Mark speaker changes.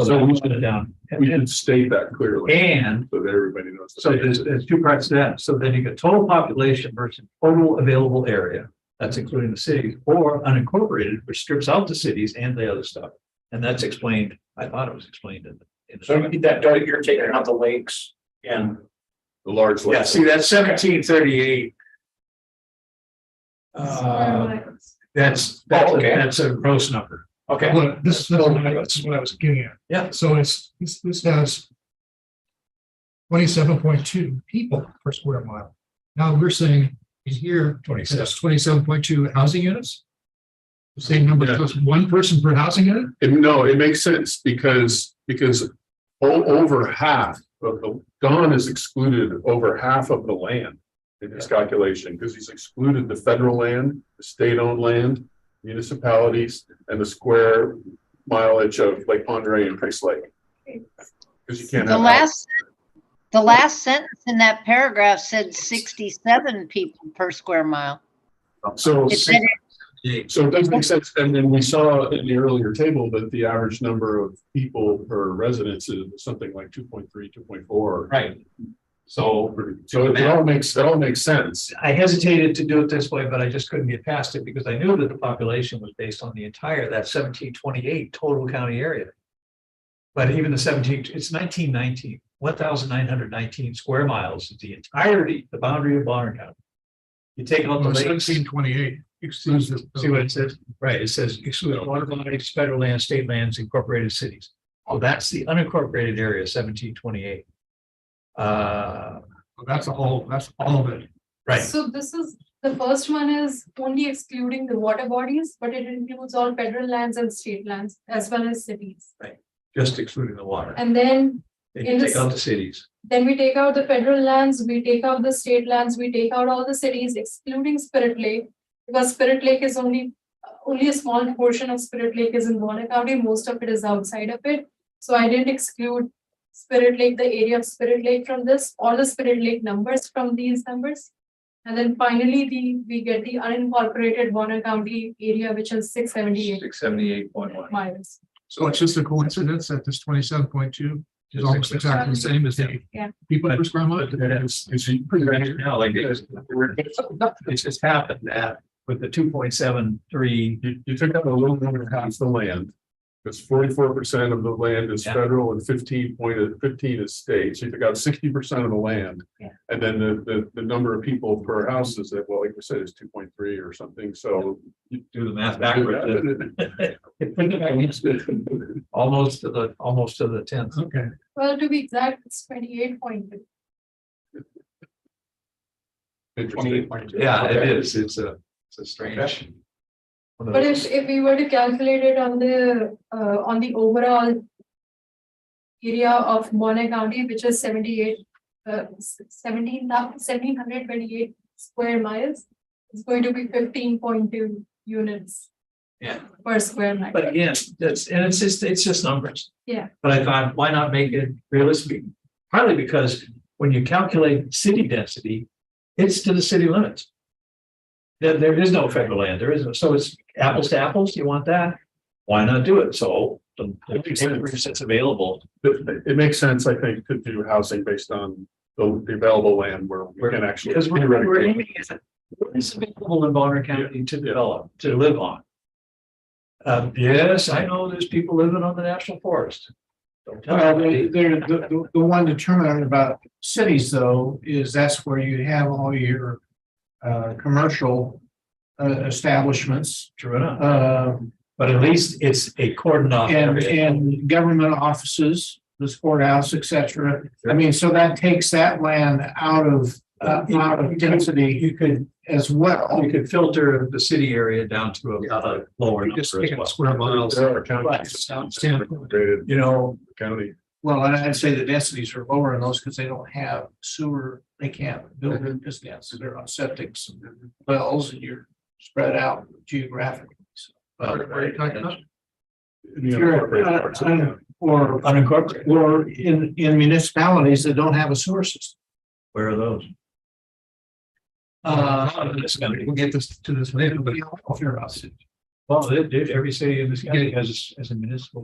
Speaker 1: So we should, we should state that clearly
Speaker 2: And
Speaker 1: so that everybody knows.
Speaker 2: so there's, there's two parts to that. So then you get total population versus total available area. That's including the cities or unincorporated, which strips out the cities and the other stuff. And that's explained, I thought it was explained in. in the-
Speaker 3: So you need that, dot, you're taking out the lakes and,
Speaker 1: The large.
Speaker 3: yeah, see, that's seventeen thirty-eight.
Speaker 2: Uh, That's, that's,
Speaker 3: Oh,
Speaker 2: a-
Speaker 3: okay.
Speaker 2: that's a gross number.
Speaker 3: Okay,
Speaker 4: Well, this is what I, this is what I was getting at.
Speaker 2: Yeah.
Speaker 4: So it's, this, this has twenty-seven point two people per square mile. Now we're saying in here, that's twenty-seven point two housing units. The Same number,
Speaker 1: Yeah.
Speaker 4: just one person per housing unit?
Speaker 1: It- no, it makes sense because, because o- over half of the, Don is excluded over half of the land in his calculation, because he's excluded the federal land, the state-owned land, municipalities, and the square mileage of Lake Pondere and Price Lake. Because you can't
Speaker 5: The
Speaker 1: have.
Speaker 5: last, the last sentence in that paragraph said sixty-seven people per square mile.
Speaker 1: So.
Speaker 5: It said
Speaker 1: So it does make sense, and then we saw in the earlier table that the average number of people per residence is something like 2.3, 2.4.
Speaker 2: Right. So
Speaker 1: So it all makes, it all makes sense.
Speaker 2: I hesitated to do it this way, but I just couldn't get past it because I knew that the population was based on the entire, that seventeen twenty-eight total county area. But even the seventeen, it's nineteen nineteen, one thousand nine hundred nineteen square miles is the entirety, the boundary of Bonner County. You take out the lakes,
Speaker 4: Seventeen twenty-eight.
Speaker 2: excludes
Speaker 1: Hmm.
Speaker 2: the- see what it says, right, it says exclude water bodies, federal land, state lands, incorporated cities. Oh, that's the unincorporated area seventeen twenty-eight. Uh,
Speaker 4: That's all, that's all of it.
Speaker 2: right,
Speaker 6: So this is, the first one is only excluding the water bodies, but it includes all federal lands and state lands as well as cities.
Speaker 2: just excluding the water,
Speaker 6: And then,
Speaker 2: and you take out the cities.
Speaker 6: then we take out the federal lands, we take out the state lands, we take out all the cities excluding Spirit Lake. Because Spirit Lake is only, only a small portion of Spirit Lake is in Warner County, most of it is outside of it. So I didn't exclude Spirit Lake, the area of Spirit Lake from this, or the Spirit Lake numbers from these numbers. And then finally, the, we get the unincorporated Warner County area, which is six seventy-eight
Speaker 2: Six seventy-eight point one.
Speaker 6: miles.
Speaker 4: So Oh, it's just a coincidence that this twenty-seven point two is almost exactly the same as the
Speaker 6: Yeah.
Speaker 4: people per square mile.
Speaker 2: It's, it's pretty much now, like, it's, it's just happened that with the two point seven three,
Speaker 1: You, you took out a little more than half the land. Because forty-four percent of the land is
Speaker 2: Yeah.
Speaker 1: federal and fifteen point, fifteen is state. So you took out sixty percent of the land.
Speaker 6: Yeah.
Speaker 1: And then the, the, the number of people per house is that, well, like we said, is two point three or something, so.
Speaker 2: you do the math backwards. uh, it put it back in. Almost to the, almost to the tenth.
Speaker 4: Okay,
Speaker 6: Well, to be exact, it's twenty-eight point two.
Speaker 1: Interesting.
Speaker 2: Yeah, it is. It's a, it's a strange. one of
Speaker 6: But
Speaker 2: those-
Speaker 6: if, if we were to calculate it on the, uh, on the overall. Area of Bonner County, which is seventy-eight, uh, seventeen thousand, seventeen hundred twenty-eight square miles. It's going to be fifteen point two units.
Speaker 2: Yeah.
Speaker 6: Per square mile.
Speaker 2: But again, that's, and it's just, it's just numbers.
Speaker 6: Yeah.
Speaker 2: But I thought, why not make it realistic? Partly because when you calculate city density, it's to the city limits. There, there is no federal land, there isn't, so it's apples to apples, you want that? Why not do it? So the, it's available,
Speaker 1: It, it makes sense, I think, to do housing based on the the available land where we can actually.
Speaker 2: because we're, we're
Speaker 1: theoretically-
Speaker 2: aiming at what is available in Bonner County to develop, to live on. Um, yes, I know there's people living on the national forest. Don't tell
Speaker 7: Well,
Speaker 2: me.
Speaker 7: the, the, the- the one determinant about cities though, is that's where you have all your uh, commercial uh, establishments,
Speaker 2: True enough.
Speaker 7: uh,
Speaker 2: But at least it's a cordon off
Speaker 7: and,
Speaker 2: area.
Speaker 7: and government offices, the courthouse, et cetera. I mean, so that takes that land out of, uh, out of density. You could. As well.
Speaker 2: You could filter the city area down to a, a lower
Speaker 4: You
Speaker 2: number
Speaker 4: just
Speaker 2: as
Speaker 4: take out
Speaker 2: well.
Speaker 4: square miles.
Speaker 1: There are
Speaker 4: Right,
Speaker 1: counties.
Speaker 4: sound- sound-
Speaker 1: Great
Speaker 2: You know,
Speaker 1: County.
Speaker 7: Well, and I'd say the densities are lower in those because they don't have sewer, they can't build in this dense, so they're on septics and wells and you're spread out geographically. so.
Speaker 4: What are you talking about?
Speaker 1: you know,
Speaker 7: You're,
Speaker 1: corporate
Speaker 7: uh,
Speaker 1: parts of the
Speaker 7: un-
Speaker 1: county.
Speaker 7: Or,
Speaker 2: unincorporated,
Speaker 7: or in, in municipalities that don't have a sewer system.
Speaker 2: where are those?
Speaker 7: Uh,
Speaker 2: This county.
Speaker 4: We'll get this to this later, but.
Speaker 7: you know, if you're a city.
Speaker 2: Well, they- they- every city in this county has, has a municipal